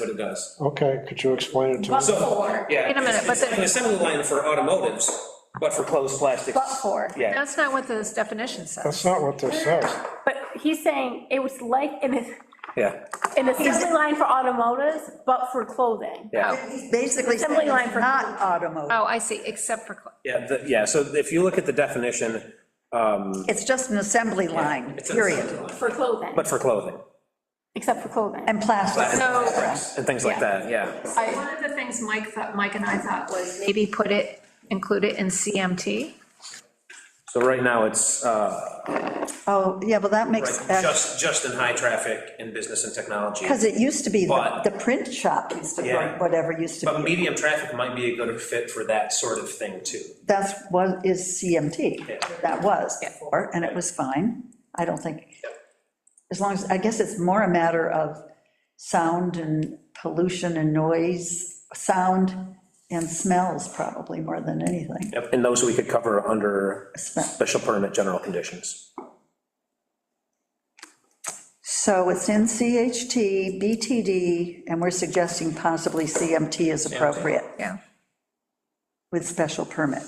what it does. Okay, could you explain it to But us? for, Yeah. Wait a minute, but It's like an the- assembly line for automotives, but for closed plastics. but for. Yeah. That's not what this definition says. That's not what this says. But he's saying it was like an, Yeah, an assembly line for automotives, but for clothing. yeah, Oh. Basically, saying Assembly line it's for- not automotive, Oh, I see, except for, cl- yeah, the- yeah, so if you look at the definition, it's just an assembly line, it's an assembly period, line, For clothing, But for clothing except for clothing. and plastic. so, and things like that, yeah. so one of the things Mike thought, Mike and I thought was maybe put it, include it in CMT. So right now, it's, uh, Oh, yeah, well, that makes, right, just, just in high traffic in business and technology. because it used to be, the But- the print shop used to, Yeah. run whatever used to But be, medium traffic might be a good fit for that sort of thing too. that's what is Yeah. CMT. That was before, and it was fine, I don't think, as long as, I guess it's more a matter of sound and pollution and noise, sound and smells probably more than anything. Yep, and those we could cover under special permit general conditions. So it's in CHT, BTD, and we're suggesting possibly CMT is appropriate Yeah. with special permit.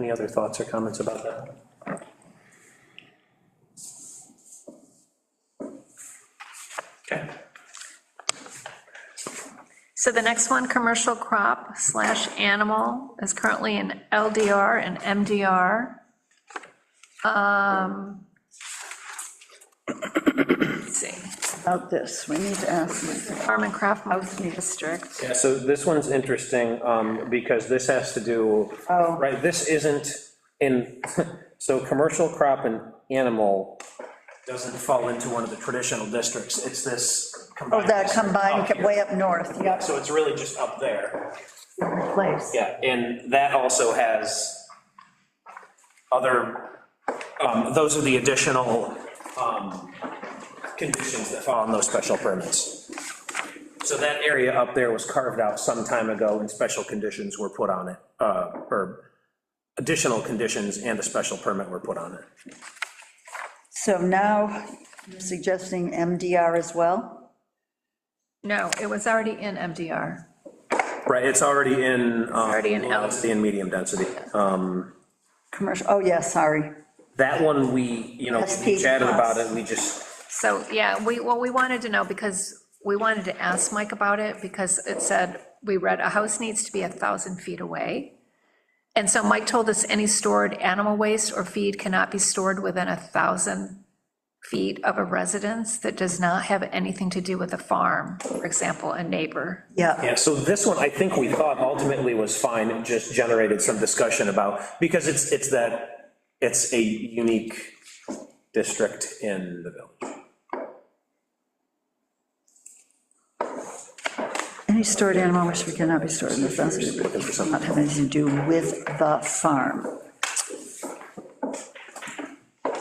Any other thoughts or comments about that? Okay, So the next one, commercial crop slash animal is currently in LDR and MDR. Um, Let's see, About this, we need to ask, farm and craft housing district. yeah, so this one's interesting, um, because this has to do, Oh. right, this isn't in, so commercial crop and animal doesn't fall into one of the traditional districts, it's this oh, combined. that district up combined here. way up north, Oh, yeah, So it's really just up there. place. Yeah, and that also has other, um, those are the additional um, conditions that fall on those special permits. So that area up there was carved out some time ago, and special conditions were put on it, uh, or additional conditions and a special permit were put on it. So now you're suggesting MDR as well? No, it was already in MDR. Right, it's already in. um, already in L. In medium density. Uh, Commercial, oh, yeah, sorry. That one, we, you know, we SP chatted about plus. it, we just, So, yeah, we, well, we wanted to know, because we wanted to ask Mike about it, because it said, we read, a house needs to be a 1,000 feet away. And so Mike told us any stored animal waste or feed cannot be stored within a 1,000 feet of a residence that does not have anything to do with a farm, for example, a neighbor. Yeah, Yeah, so this one, I think we thought ultimately was fine, it just generated some discussion about, because it's, it's that, it's a unique district in the village. any stored animal which we cannot be stored in the fence, does not have anything to do with the farm.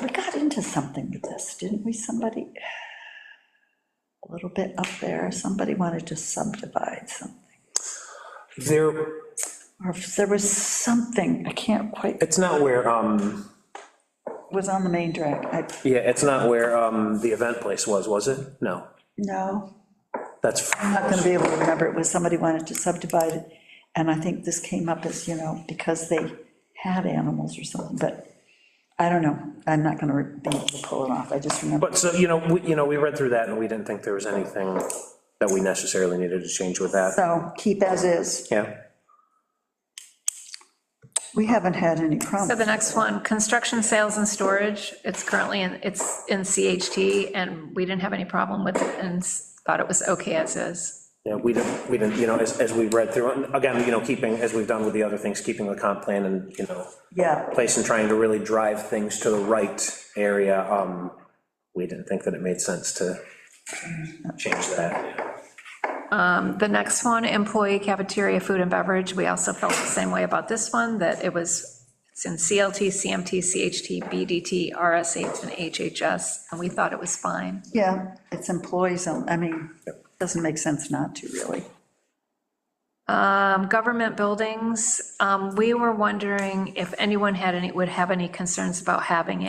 We got into something with this, didn't we, somebody? A little bit up there, somebody wanted to subdivide something, There, or if there was something, I can't quite, it it's not where, um, was on the main drag, I, yeah, it's not where, um, the event place was, was it? No, no. that's, I'm not gonna be able to remember, it was somebody wanted to subdivide it, and I think this came up as, you know, because they had animals or something, but I don't know, I'm not gonna be able to pull it off, I just remember. but so, you know, we, you know, we read through that and we didn't think there was anything that we necessarily needed to change with that. So keep as is, Yeah, we haven't had any So the problems. next one, construction, sales, and storage, it's currently in, it's in CHT, and we didn't have any problem with it, and thought it was okay as is. yeah, we didn't, we didn't, you know, as, as we read through, it, and again, you know, keeping, as we've done with the other things, keeping the comp plan and, you know, Yeah, place and trying to really drive things to the right area, um, we didn't think that it made sense to change that. The next one, employee cafeteria, food and beverage, we also felt the same way about this one, that it was, it's in CLT, CMT, CHT, BDT, RSH, and HHS, and we thought it was fine. yeah, it's employees, on- I mean, doesn't make sense not to, really. Um, Government buildings, um, we were wondering if anyone had any, would have any concerns about having